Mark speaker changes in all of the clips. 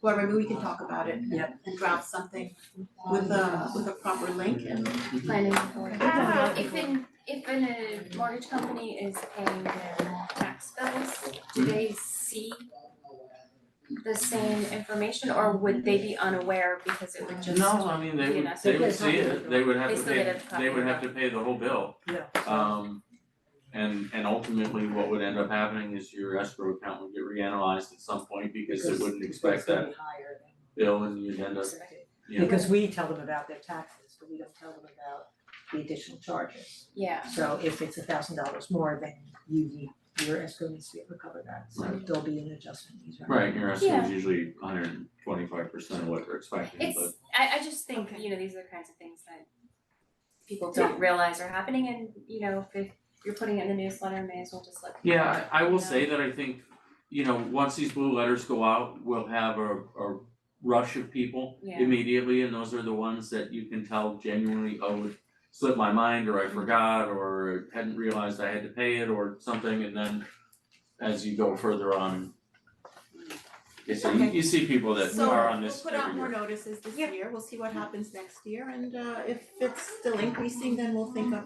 Speaker 1: whoever, maybe we can talk about it and
Speaker 2: Yep.
Speaker 1: and draft something with a with a proper link and
Speaker 3: planning for.
Speaker 4: Uh, if an, if an uh, mortgage company is paying their tax bills, do they see the same information or would they be unaware because it would just?
Speaker 5: No, I mean, they
Speaker 4: you
Speaker 5: would,
Speaker 4: know, so
Speaker 5: they would
Speaker 2: there's
Speaker 5: see
Speaker 2: nothing to
Speaker 5: it, they would have
Speaker 4: They
Speaker 5: to
Speaker 4: still get
Speaker 5: pay,
Speaker 4: a copy
Speaker 5: they would
Speaker 4: of
Speaker 5: have
Speaker 4: it.
Speaker 5: to pay the whole bill. Um, and and ultimately, what would end up happening is your escrow account would get reanalyzed at some point because it wouldn't expect that bill and you'd end up, you know.
Speaker 2: Because we tell them about their taxes, but we don't tell them about the additional charges.
Speaker 4: Yeah,
Speaker 2: So if it's a thousand dollars more, then you need, your escrow needs to be recovered that, so
Speaker 5: Right.
Speaker 2: there'll be an adjustment either.
Speaker 5: Right, your escrow
Speaker 4: Yeah.
Speaker 5: is usually hundred and twenty-five percent of what they're expecting,
Speaker 4: it's,
Speaker 5: but
Speaker 4: I I just think, you know, these are the kinds of things that people don't realize are happening and, you know, if it- you're putting it in the newsletter, may as well just let people know.
Speaker 5: yeah, I I will
Speaker 4: Yeah.
Speaker 5: say that I think, you know, once these blue letters go out, we'll have a a rush of people
Speaker 4: Yeah.
Speaker 5: immediately, and those are the ones that you can tell genuinely, oh, it slipped my mind,
Speaker 1: Mm-hmm.
Speaker 5: or I forgot, or hadn't realized I had to pay it, or something, and then as you go further on, you see, you- you see people that
Speaker 1: so
Speaker 5: are on
Speaker 1: we'll
Speaker 5: this
Speaker 1: put
Speaker 5: every
Speaker 1: out more
Speaker 5: year.
Speaker 1: notices this
Speaker 2: Yeah.
Speaker 1: year, we'll see what happens next year and uh if it's still increasing, then we'll think of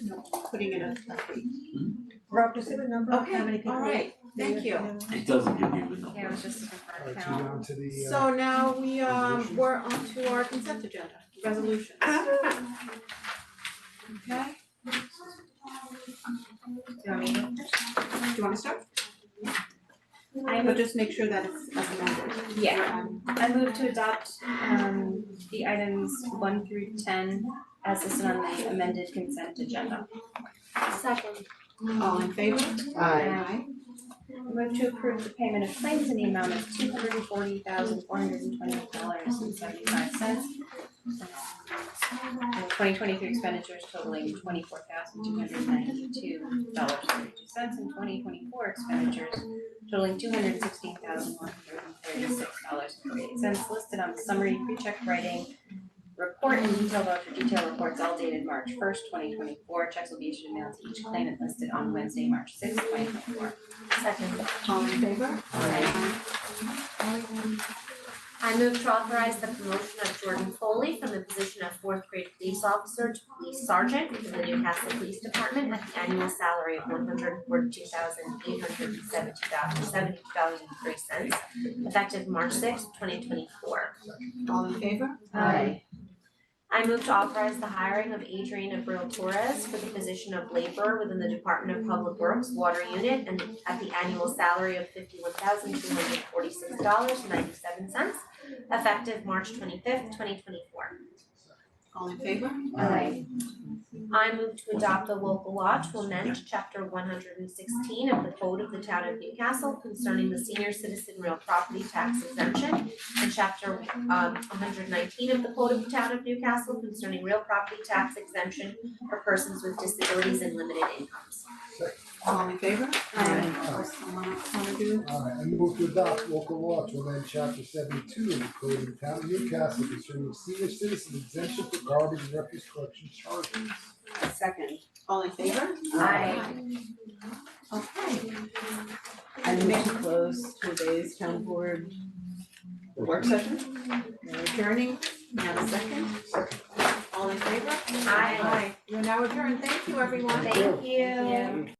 Speaker 1: you know, putting it in a fee.
Speaker 2: Rob, does it have a number of
Speaker 1: Okay,
Speaker 2: how many people?
Speaker 1: alright, thank you.
Speaker 5: It doesn't give you the number.
Speaker 4: Yeah, it was just a
Speaker 6: All
Speaker 4: preferred
Speaker 6: right, so
Speaker 4: count.
Speaker 6: down to the uh,
Speaker 1: So now we um we're on to our consent agenda, resolutions. Ah. Okay,
Speaker 4: Do you want me to-
Speaker 1: do you wanna start?
Speaker 4: I
Speaker 1: But just make sure that it's as amended.
Speaker 4: Yeah. I move to adopt um the items one through ten as listed on the amended consent agenda.
Speaker 3: Second.
Speaker 1: All in favor? Aye.
Speaker 4: I Move to approve the payment of claims in the amount of two hundred and forty thousand four hundred and twenty dollars and seventy-five cents. Twenty twenty-three expenditures totaling twenty-four thousand two hundred and ninety-two dollars thirty-two cents and twenty twenty-four expenditures totaling two hundred and sixteen thousand one hundred and thirty-six dollars and forty-eight cents listed on the summary pre-check writing report and detailed vote for detailed reports all dated March first, twenty twenty-four. Checks will be issued and mailed to each claimant listed on Wednesday, March sixth, twenty twenty-four.
Speaker 3: Second.
Speaker 1: All in favor? Aye.
Speaker 3: I move to authorize the promotion of Jordan Foley from the position of fourth grade police officer to police sergeant in the Newcastle Police Department at the annual salary of one hundred forty-two thousand eight hundred and seventy dollars, seventy dollars and three cents, effective March sixth, twenty twenty-four.
Speaker 1: All in favor?
Speaker 3: Aye. I move to authorize the hiring of Adriana Brill Torres for the position of laborer within the Department of Public Works Water Unit and at the annual salary of fifty-one thousand two hundred forty-six dollars ninety-seven cents, effective March twenty-fifth, twenty twenty-four.
Speaker 1: All in favor?
Speaker 4: Aye.
Speaker 3: I move to adopt a local law to amend chapter one hundred and sixteen of the code of the town of Newcastle concerning the senior citizen real property tax exemption and chapter um one hundred nineteen of the code of the town of Newcastle concerning real property tax exemption for persons with disabilities and limited incomes.
Speaker 1: All in favor?
Speaker 6: Aye.
Speaker 1: Or someone else wanna do?
Speaker 6: all right, I move to adopt local law to amend chapter seventy-two of the code of the town of Newcastle concerning senior citizen exemption for garbage and refuse collection charges.
Speaker 7: Second,
Speaker 1: All in favor?
Speaker 3: Aye.
Speaker 1: Okay,
Speaker 7: I move to close today's town board
Speaker 1: work session, we're adjourning, now the second. All in favor?
Speaker 3: Aye.
Speaker 1: Aye, we're now adjourned, thank you everyone.
Speaker 3: Thank you.
Speaker 4: Yeah.
Speaker 6: Thank